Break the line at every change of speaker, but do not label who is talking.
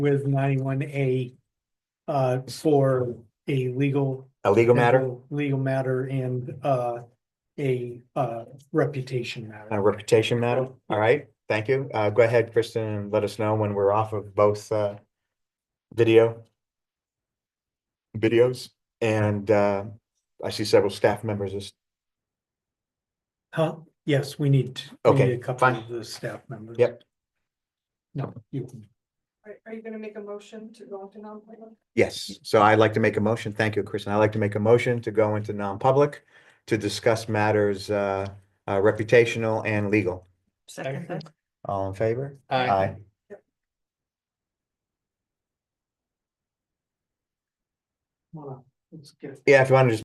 with ninety-one A uh, for a legal.
A legal matter,
Legal matter and uh, a uh, reputation
a
matter.
reputation matter. All right, thank you. Uh, go ahead, Kristen, and let us know when we're off of both, uh, video videos. And, uh, I see several staff members. is-
Huh? Yes, we need. we
Okay,
need A couple
fine.
of the staff members.
Yep.
No, you can.
Are, are you gonna make a motion to go into non-public?
Yes, so I'd like to make a motion. Thank you, Kristen. I'd like to make a motion to go into non-public to discuss matters, uh, uh, reputational and legal.
Second that.
All in favor?
Aye.
Hold on, Let's get.
Yeah, if you want to just